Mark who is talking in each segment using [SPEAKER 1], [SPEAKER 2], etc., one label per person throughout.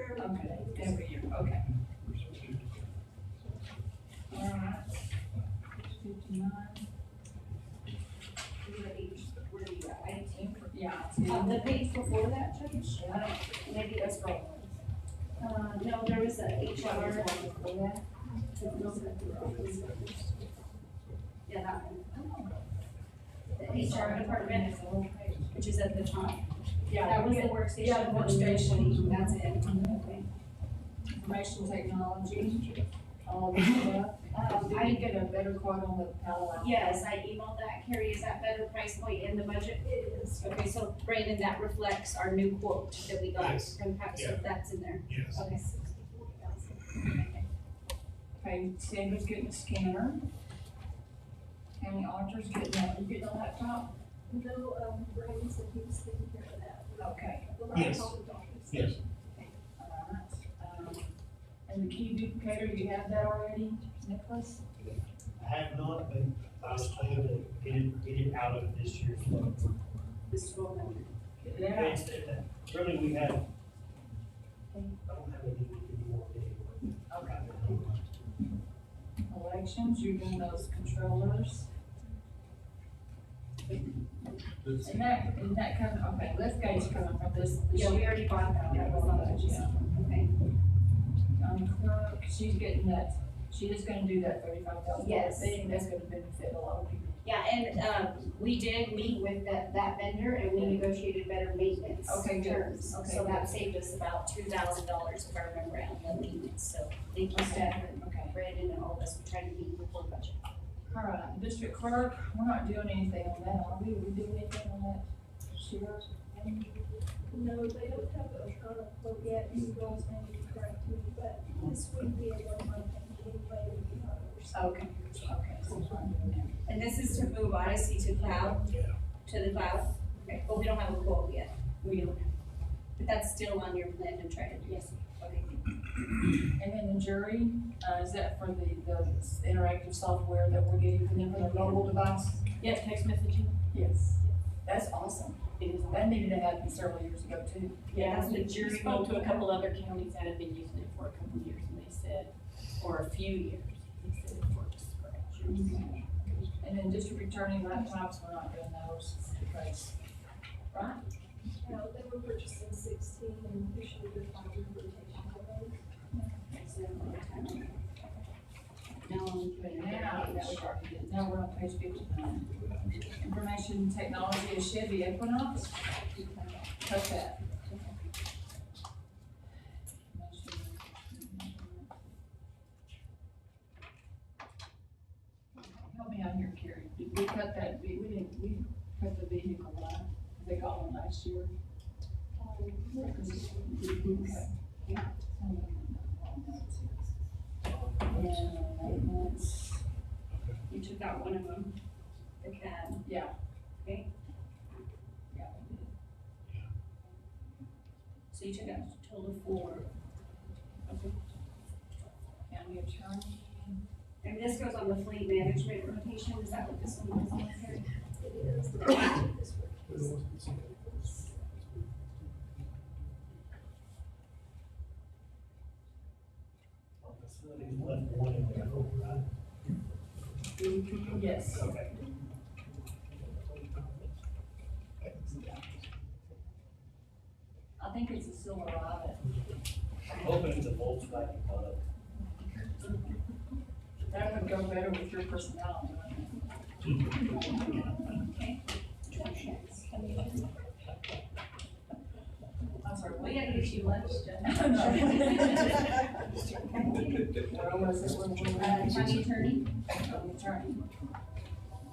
[SPEAKER 1] Okay, there we go, okay. All right. Fifty-nine. Yeah.
[SPEAKER 2] On Uh, the
[SPEAKER 1] it's-
[SPEAKER 2] page before that, Judge,
[SPEAKER 1] I don't-
[SPEAKER 2] maybe that's right. Uh, no, there was a HR. Yeah, that one. Oh. The HR department, which is at the top.
[SPEAKER 1] Yeah,
[SPEAKER 2] That was the
[SPEAKER 1] yeah,
[SPEAKER 2] workstation.
[SPEAKER 1] Yeah, the workstation.
[SPEAKER 2] That's it. Mm-hmm. Okay.
[SPEAKER 1] information technology, all of that stuff. Um, I did get a better quote on the Palo Alto.
[SPEAKER 2] Yes, I emailed that, Carrie, is that better price point in the budget? It is. Okay, so Brandon, that reflects our new quote that we got
[SPEAKER 3] Yes.
[SPEAKER 2] from Pat, so
[SPEAKER 3] Yeah.
[SPEAKER 2] that's in there.
[SPEAKER 3] Yes.
[SPEAKER 2] Okay.
[SPEAKER 1] Okay, Sandra's getting a scanner. County auditor's getting, that. you getting a laptop?
[SPEAKER 4] No, um, Brian said he was taking care of that.
[SPEAKER 1] Okay.
[SPEAKER 4] The
[SPEAKER 3] Yes.
[SPEAKER 4] laptop and doctors.
[SPEAKER 3] Yes.
[SPEAKER 1] all right. Um, And the key duplicator, you have that already, Nicholas?
[SPEAKER 5] I have not, but I was told to get it, get it out of this year's fund.
[SPEAKER 2] Mr. Bowman.
[SPEAKER 1] Yeah.
[SPEAKER 5] It's- it- Really, we have, I don't have anything to do more anymore.
[SPEAKER 1] Okay. Elections, you're doing those controllers. And that, and that comes, okay, lift gate's coming from this. this
[SPEAKER 2] Yeah, we
[SPEAKER 1] year.
[SPEAKER 2] already bought that, that was on the
[SPEAKER 1] Yeah.
[SPEAKER 2] budget. Okay.
[SPEAKER 1] Um, clerk, she's getting that, she is gonna do that thirty-five thousand dollar
[SPEAKER 2] Yes.
[SPEAKER 1] thing, that's gonna benefit a lot of people.
[SPEAKER 2] Yeah, and, um, we did meet with that, that vendor and we negotiated better maintenance
[SPEAKER 1] Okay, good.
[SPEAKER 2] terms.
[SPEAKER 1] Okay,
[SPEAKER 2] So
[SPEAKER 1] good.
[SPEAKER 2] that saved us about two thousand dollars if I remember on the maintenance, so thank you, staff and
[SPEAKER 1] Okay.
[SPEAKER 2] Brandon and all of us for trying to meet before budget.
[SPEAKER 1] All right, district clerk, we're not doing anything on that, are we, we doing anything on that? Sheriff?
[SPEAKER 4] No, they don't have a, uh, quote yet, you guys may be correct me, but this would be a one month and anyway, we have.
[SPEAKER 1] Okay, okay, so we're not doing that.
[SPEAKER 2] And this is to move Odyssey to cloud?
[SPEAKER 3] Yeah.
[SPEAKER 2] To the cloud? Okay, but we don't have a quote yet. We don't. But that's still on your plan to try to, yes, okay.
[SPEAKER 1] And then the jury, uh, is that for the, the interactive software that we're getting from them for the mobile device?
[SPEAKER 2] Yes, text messaging?
[SPEAKER 1] Yes. That's awesome. That needed to happen several years ago too.
[SPEAKER 6] Yeah, the jury spoke to a couple other counties that had been using it for a couple years, and they said, or a few years, they said it works great.
[SPEAKER 1] And then district attorney laptops, we're not doing those because, right?
[SPEAKER 4] Now, they were purchasing sixteen and officially they're finding rotation already.
[SPEAKER 2] No, I'm doing it.
[SPEAKER 1] Now, that was our- now we're on page fifty-nine. Information technology is Chevy Equinox. Cut that. Help me out here, Carrie. Did we cut that, we, we didn't, we cut the vehicle line, they got one last year. Okay. Yeah, that's-
[SPEAKER 2] You took out one of them, the cab.
[SPEAKER 1] Yeah.
[SPEAKER 2] Okay.
[SPEAKER 1] Yeah, we did.
[SPEAKER 2] So you took out a total of four.
[SPEAKER 1] County attorney.
[SPEAKER 2] And this goes on the fleet management rotation, is that what this one was on here?
[SPEAKER 4] It is, the budget this work.
[SPEAKER 5] Facilities left one in there, oh, right?
[SPEAKER 1] Yes.
[SPEAKER 5] Okay.
[SPEAKER 1] I think it's a silver rabbit.
[SPEAKER 5] I'm hoping the Volkswagen product.
[SPEAKER 1] That would go better with your personality.
[SPEAKER 2] Okay. Twenty-six.
[SPEAKER 1] I'm sorry,
[SPEAKER 2] We
[SPEAKER 1] wait.
[SPEAKER 2] gotta get you lunch, Jen.
[SPEAKER 1] Where was it? Where- where- where-
[SPEAKER 2] Uh, county attorney?
[SPEAKER 1] County attorney.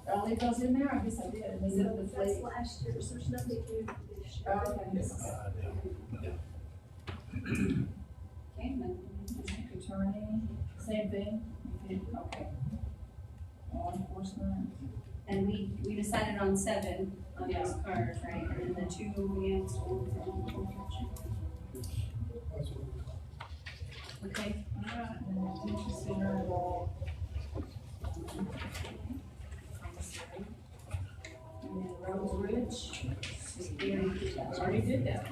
[SPEAKER 1] Did I leave those in there? I guess I did. Is it the
[SPEAKER 4] So that's
[SPEAKER 1] fleet?
[SPEAKER 4] last year, so there's nothing new this year.
[SPEAKER 1] Okay.
[SPEAKER 3] Uh, yeah.
[SPEAKER 2] Okay, and then
[SPEAKER 1] District attorney, same thing? Okay. Law enforcement.
[SPEAKER 2] And we, we decided on seven on those cars, right, and then the two we have stolen from. Okay,
[SPEAKER 1] Alright, and then detention center law. And then Rose Ridge.
[SPEAKER 2] just very.
[SPEAKER 1] Already did that.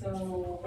[SPEAKER 1] So